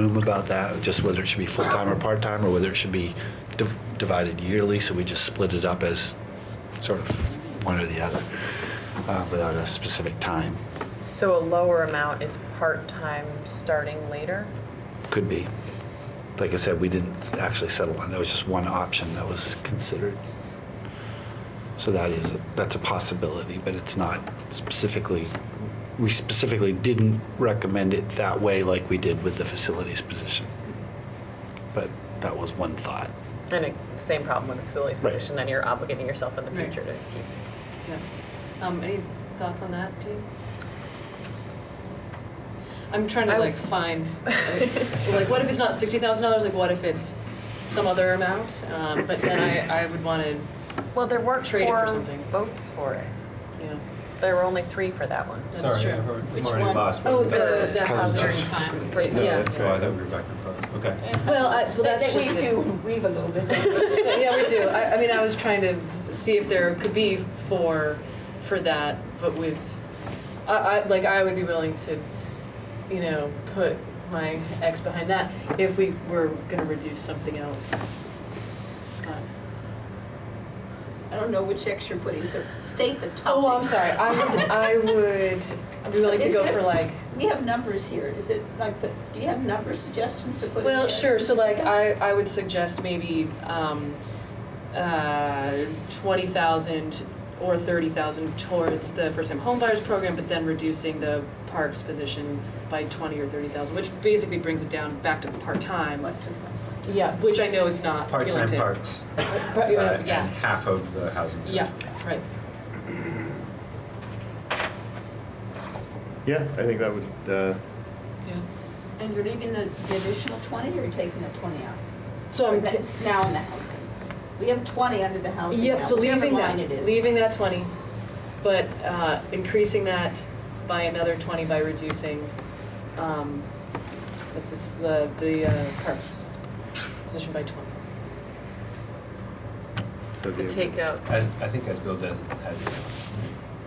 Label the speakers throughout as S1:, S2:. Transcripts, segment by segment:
S1: room about that, just whether it should be full-time or part-time, or whether it should be div- divided yearly, so we just split it up as sort of one or the other, uh, without a specific time.
S2: So a lower amount is part-time starting later?
S1: Could be. Like I said, we didn't actually settle on, that was just one option that was considered. So that is, that's a possibility, but it's not specifically, we specifically didn't recommend it that way like we did with the facilities position. But that was one thought.
S2: And it- same problem with the facilities
S1: Right.
S2: commission, then you're obligating yourself in the
S3: Right.
S2: future to keep.
S3: Yeah. Um, any thoughts on that, do you? I'm trying to
S2: I
S3: like
S2: would-
S3: find, like, like, what if it's not sixty thousand dollars, like what if it's some other amount? Um, but then I, I would wanna,
S2: Well, there weren't
S3: Trade it for
S2: four
S3: something.
S2: votes for it.
S3: you know,
S2: There were only three for that one.
S3: that's true.
S4: Sorry, I heard.
S5: Which
S4: Marty
S5: one?
S4: Boss.
S3: Oh, the, the
S1: Housing.
S3: housing.
S5: time.
S2: Great.
S4: No,
S3: yeah.
S4: That's why I thought we were back and forth. Okay.
S3: Well, I, well, that's
S5: That- that
S3: just it.
S5: We do weave a little bit.
S3: So, yeah, we do. I, I mean, I was trying to s- see if there could be four for that, but with, I, I, like, I would be willing to, you know, put my ex behind that if we were gonna reduce something else. Uh,
S5: I don't know which X you're putting, so state the topic.
S3: Oh, I'm sorry, I would, I would I'd be willing to
S5: Is
S3: go for
S5: this-
S3: like,
S5: We have numbers here. Is it like the, do you have number suggestions to put in
S3: well,
S5: there?
S3: sure, so like, I, I would suggest maybe, um, uh, twenty thousand or thirty thousand towards the first-time homebuyers program, but then reducing the parks position by twenty or thirty thousand, which basically brings it down back to part-time.
S5: What to-
S3: Yeah, which I know is not appealing
S4: Part-time
S3: to.
S4: parks,
S3: But,
S4: uh,
S3: uh,
S4: and
S3: Yeah,
S4: half of the housing.
S3: yeah, right.
S6: Yeah, I think that would,
S3: Yeah.
S6: uh,
S5: And you're leaving the the additional twenty, or you're taking the twenty out?
S3: So I'm, ta-
S5: That's now in the housing. We have twenty under the housing now,
S3: Yep, so
S5: whichever
S3: leaving
S5: line
S3: that,
S5: it is.
S3: leaving that twenty, but uh, increasing that by another twenty by reducing um, the fas- the, the uh, parks position by twenty.
S6: so the.
S2: Take out.
S4: As, I think that's billed as, as.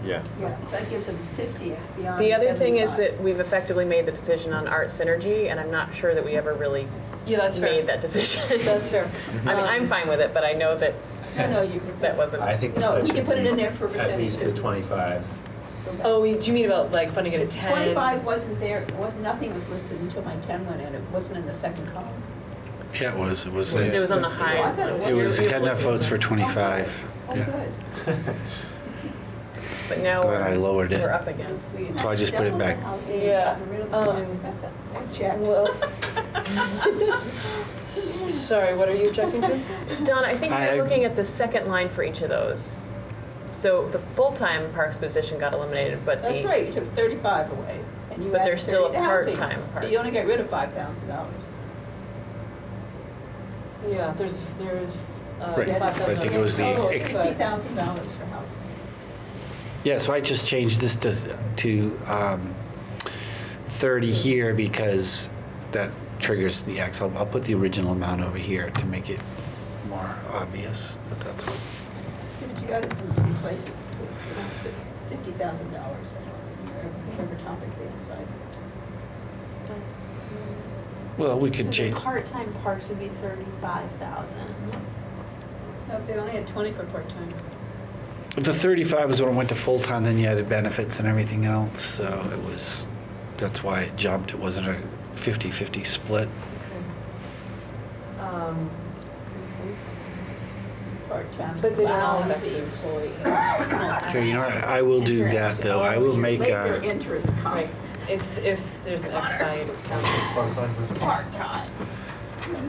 S6: Yeah.
S5: Yeah, so that gives them fifty beyond
S2: The other thing is
S5: 75.
S2: that we've effectively made the decision on art synergy, and I'm not sure that we ever really
S3: Yeah, that's
S2: made
S3: fair.
S2: that decision.
S3: That's fair.
S2: I mean, I'm fine with it, but I know that
S5: No, no, you.
S2: that wasn't.
S4: I think.
S5: No,
S4: that
S5: we
S4: should
S5: can put it
S4: be
S5: in there for
S4: At least a
S5: percentage.
S4: twenty-five.
S3: Oh, we- do you mean about like funding it at ten?
S5: Twenty-five wasn't there, was, nothing was listed until my ten went in. It wasn't in the second column.
S1: Yeah, it was, it was,
S4: It
S2: It was on the
S5: Oh, I
S2: high.
S5: thought
S1: it was, it had enough votes for twenty-five.
S5: Oh,
S1: Yeah.
S5: good.
S2: But now
S1: Glad
S2: we're,
S1: I lowered it.
S2: we're up again.
S1: So I just put it back.
S3: Yeah, um,
S5: That's a, that check.
S3: Well. S- Sorry, what are you objecting to?
S2: Don, I think
S1: I-
S2: you're looking at the second line for each of those. So the full-time parks position got eliminated, but the.
S5: That's right, you took thirty-five away. and you
S2: But
S5: added
S2: there's still a
S5: 30 to housing.
S2: part-time
S5: So you
S2: parts.
S5: only get rid of five thousand dollars.
S3: Yeah, there's, there's uh,
S1: Right,
S3: five
S1: but I
S3: thousand. Oh,
S1: think it was the-
S5: Total
S1: ex-
S5: fifty thousand dollars for housing.
S1: Yeah, so I just changed this to, to um, 30 here because that triggers the X. I'll, I'll put the original amount over here to make it more obvious that that's what.
S5: Where Did you go to from two places? Fifty thousand dollars for housing, or whatever topic they decide.
S1: Well, we
S7: So
S1: could
S7: the
S1: change,
S7: part-time parks would be thirty-five thousand.
S5: No, they only had twenty for part-time.
S1: if the 35 is when it went to full-time, then you added benefits and everything else, so it was, that's why it jumped. It wasn't a 50-50 split.
S3: Um,
S5: Part-time.
S3: But they don't all have
S5: lousy
S3: Xs.
S5: employee.
S1: Okay, you know, what? I will do that, though. I will make uh,
S5: Labor
S1: a,
S5: interest
S3: Right,
S5: comp,
S3: it's if there's an X by it, it's counted.
S4: Part-time was.
S5: part-time.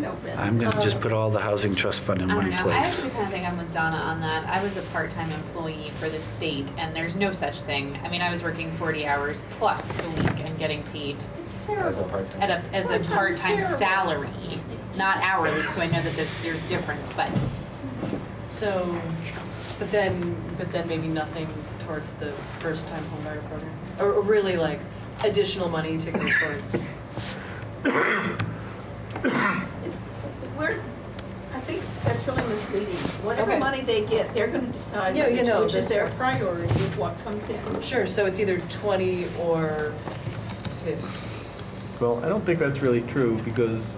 S5: No benefit.
S1: I'm going to just put all the housing trust fund
S7: I
S1: in
S7: don't
S1: one
S7: know, I
S1: place.
S7: actually kind of think I'm with Donna on that. I was a part-time employee for the state and there's no such thing. I mean, I was working forty hours plus a week and getting paid
S5: It's
S4: As a
S5: terrible.
S4: part-time.
S7: at a, as a
S5: Part-time's
S7: part-time
S5: Oh, terrible.
S7: salary, not hourly, so I know that there's, there's difference, but
S3: So, but then, but then maybe nothing towards the first-time homebuyer program? Or or really like additional money to go towards?
S5: We're, I think that's really misleading.
S3: Okay.
S5: Whatever money they get, they're gonna decide
S3: Yeah, you
S5: which-
S3: know,
S5: which is
S3: that's-
S5: their priority, what comes in.
S3: Sure, so it's either twenty or fifty.
S6: Well, I don't think that's really true because